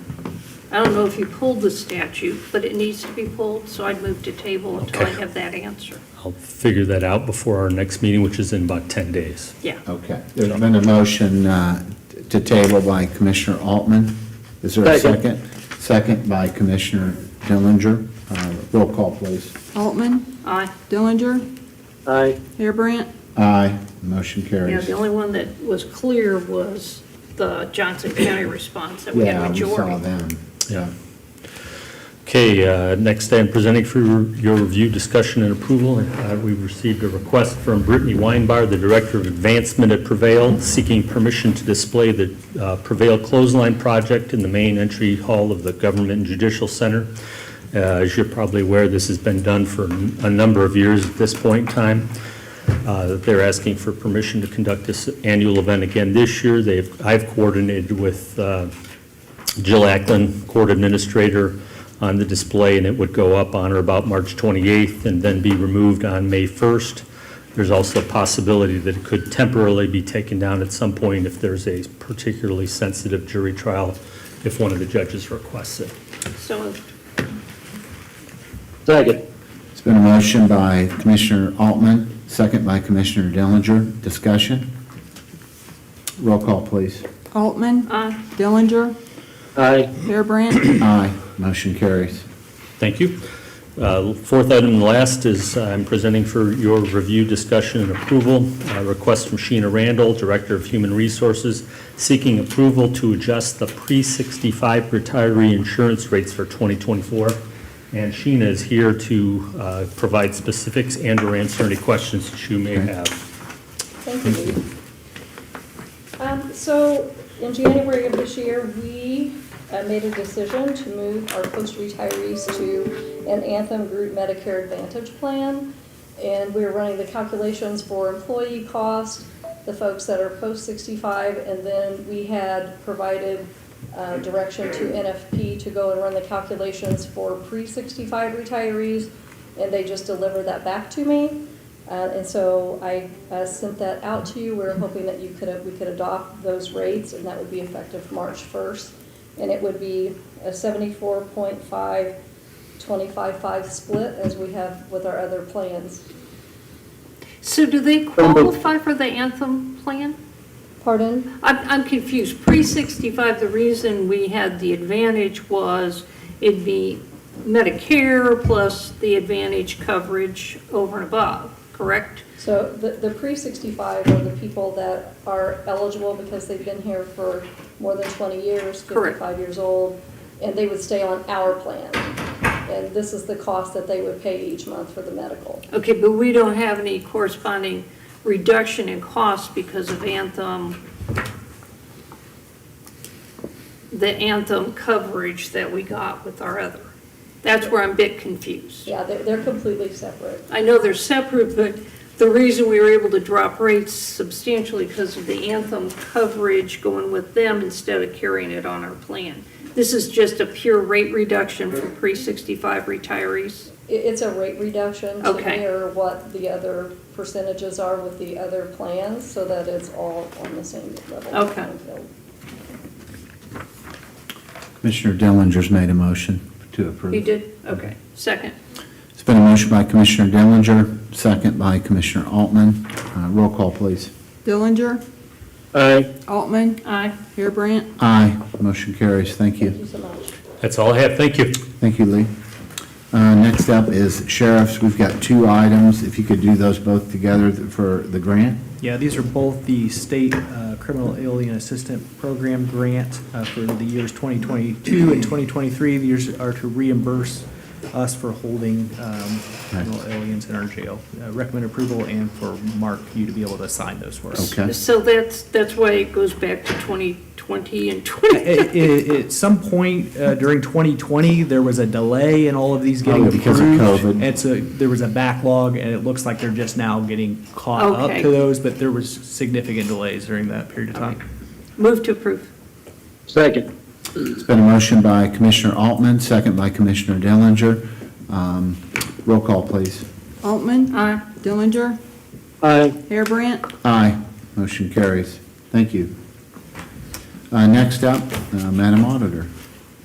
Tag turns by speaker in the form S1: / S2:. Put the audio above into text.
S1: I don't know if you pulled the statute, but it needs to be pulled, so I'd move to table until I
S2: Okay.
S1: have that answer.
S2: I'll figure that out before our next meeting, which is in about 10 days.
S1: Yeah.
S3: Okay, there's been a motion uh, to table by Commissioner Altman. Is there a
S4: Second.
S3: second? Second by Commissioner Dillinger. Uh, Roll call, please.
S5: Altman,
S1: Aye.
S5: Dillinger,
S4: Aye.
S5: Harebrant,
S3: Aye, motion
S1: Yeah,
S3: carries.
S1: the only one that was clear was the Johnson County response that we had
S3: Yeah, we saw
S1: majority.
S3: them.
S2: Yeah. Okay, uh, next I'm presenting for your review, discussion, and approval. Uh, We received a request from Brittany Weinbar, the Director of Advancement at Prevail, seeking permission to display the uh, Prevail Clothesline Project in the main entry hall of the Government and Judicial Center. Uh, As you're probably aware, this has been done for a number of years at this point in time. Uh, They're asking for permission to conduct this annual event again this year. They've, I've coordinated with uh, Jill Ackland, Court Administrator, on the display, and it would go up on or about March 28th and then be removed on May 1st. There's also a possibility that it could temporarily be taken down at some point if there's a particularly sensitive jury trial, if one of the judges requests it.
S1: So moved.
S4: Second.
S3: It's been a motion by Commissioner Altman, second by Commissioner Dillinger. Discussion? Roll call, please.
S5: Altman,
S1: Aye.
S5: Dillinger,
S4: Aye.
S5: Harebrant,
S3: Aye, motion carries.
S2: Thank you. Uh, Fourth item and last is uh, I'm presenting for your review, discussion, and approval, a request from Sheena Randall, Director of Human Resources, seeking approval to adjust the pre-65 retiree insurance rates for 2024. And Sheena is here to uh, provide specifics and/or answer any questions that you may have.
S6: Thank you. Um, So in January of this year, we uh, made a decision to move our post-retirees to an Anthem Group Medicare Advantage plan. And we were running the calculations for employee cost, the folks that are post-65, and then we had provided uh, direction to NFP to go and run the calculations for pre-65 retirees, and they just delivered that back to me. Uh, And so I uh, sent that out to you. We are hoping that you could, we could adopt those rates, and that would be effective March 1st. And it would be a 74.5, 25.5 split, as we have with our other plans.
S1: So do they qualify for the Anthem plan?
S6: Pardon?
S1: I'm, I'm confused. Pre-65, the reason we had the advantage was it'd be Medicare plus the advantage coverage over and above, correct?
S6: So the, the pre-65 are the people that are eligible because they've been here for more than 20 years,
S1: Correct.
S6: 55 years old, and they would stay on our plan. And this is the cost that they would pay each month for the medical.
S1: Okay, but we don't have any corresponding reduction in cost because of Anthem, the Anthem coverage that we got with our other. That's where I'm a bit confused.
S6: Yeah, they're, they're completely separate.
S1: I know they're separate, but the reason we were able to drop rates substantially because of the Anthem coverage going with them instead of carrying it on our plan. This is just a pure rate reduction for pre-65 retirees.
S6: It, it's a rate reduction to
S1: Okay.
S6: mirror what the other percentages are with the other plans, so that it's all on the same level.
S1: Okay.
S3: Commissioner Dillinger's made a motion to approve.
S1: You did? Okay. Second.
S3: It's been a motion by Commissioner Dillinger, second by Commissioner Altman. Uh, Roll call, please.
S5: Dillinger,
S4: Aye.
S5: Altman,
S1: Aye.
S5: Harebrant,
S3: Aye, motion carries. Thank
S6: Thank you
S3: you.
S6: so much.
S2: That's all I have. Thank you.
S3: Thank you, Lee. Uh, Next up is sheriffs. We've got two items. If you could do those both together for the grant.
S7: Yeah, these are both the state uh, criminal alien assistant program grant uh, for the years 2022 and 2023. These are to reimburse us for holding um, criminal aliens in our jail. Uh, Recommend approval and for Mark, you to be able to sign those for us.
S3: Okay.
S1: So that's, that's why it goes back to 2020 and 20.
S7: At- At at some point uh, during 2020, there was a delay in all of these getting
S3: Oh,
S7: approved.
S3: because of COVID.
S7: It's a, there was a backlog, and it looks like they're just now getting caught up
S1: Okay.
S7: to those, but there was significant delays during that period of time.
S1: Move to approve.
S4: Second.
S3: It's been a motion by Commissioner Altman, second by Commissioner Dillinger. Um, Roll call, please.
S5: Altman,
S1: Aye.
S5: Dillinger,
S4: Aye.
S5: Harebrant,
S3: Aye, motion carries. Thank you. Uh, Next up, uh, Madam Auditor.